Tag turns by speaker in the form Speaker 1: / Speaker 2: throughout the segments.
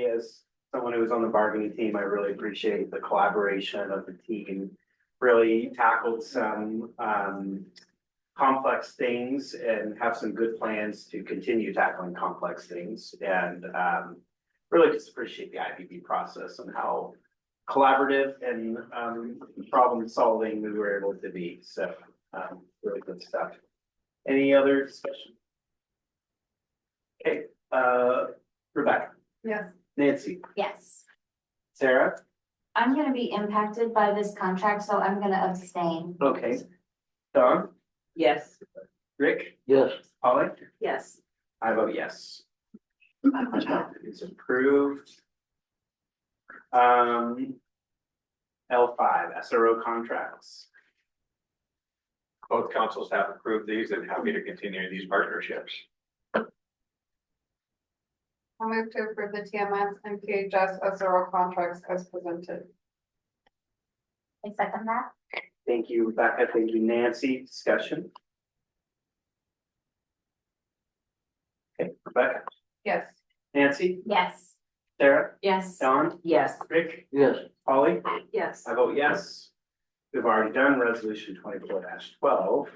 Speaker 1: as someone who was on the bargaining team, I really appreciate the collaboration of the team. Really tackled some um complex things and have some good plans to continue tackling complex things and um. Really just appreciate the IBB process and how collaborative and um problem solving we were able to be, so um really good stuff. Any other discussion? Okay, uh Rebecca.
Speaker 2: Yes.
Speaker 1: Nancy,
Speaker 3: Yes,
Speaker 1: Sarah,
Speaker 3: I'm gonna be impacted by this contract, so I'm gonna abstain.
Speaker 1: okay. Don,
Speaker 2: Yes.
Speaker 1: Rick,
Speaker 4: Yes,
Speaker 1: Polly,
Speaker 2: Yes.
Speaker 1: I vote yes. It's approved. Um. L five, SRO contracts.
Speaker 5: both councils have approved these and happy to continue these partnerships.
Speaker 6: I'll move to approve the TMS and PHS SRO contracts as presented.
Speaker 3: I second that.
Speaker 1: Thank you, Rebecca. Thank you, Nancy. Discussion. Okay, Rebecca,
Speaker 6: Yes.
Speaker 1: Nancy,
Speaker 3: Yes.
Speaker 1: Sarah,
Speaker 2: Yes.
Speaker 1: Don,
Speaker 2: Yes.
Speaker 1: Rick,
Speaker 4: yes,
Speaker 1: Polly.
Speaker 2: Yes.
Speaker 1: I vote yes. We've already done resolution twenty-four twelve.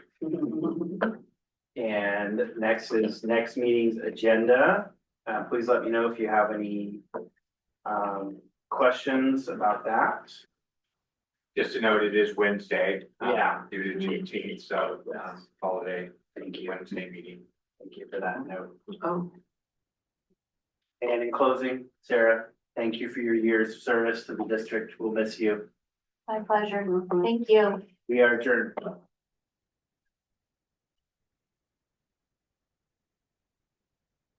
Speaker 1: And next is next meeting's agenda. Uh, please let me know if you have any um, questions about that.
Speaker 5: Just to note, it is Wednesday. um,
Speaker 1: Yeah.
Speaker 5: Due to Juneteenth, so
Speaker 1: Yeah.
Speaker 5: um, holiday,
Speaker 1: Thank you.
Speaker 5: Wednesday meeting.
Speaker 1: Thank you for that note.
Speaker 2: Oh,
Speaker 1: And in closing, Sarah, thank you for your years of service to the district. We'll miss you.
Speaker 3: My pleasure. Thank you.
Speaker 1: We are adjourned.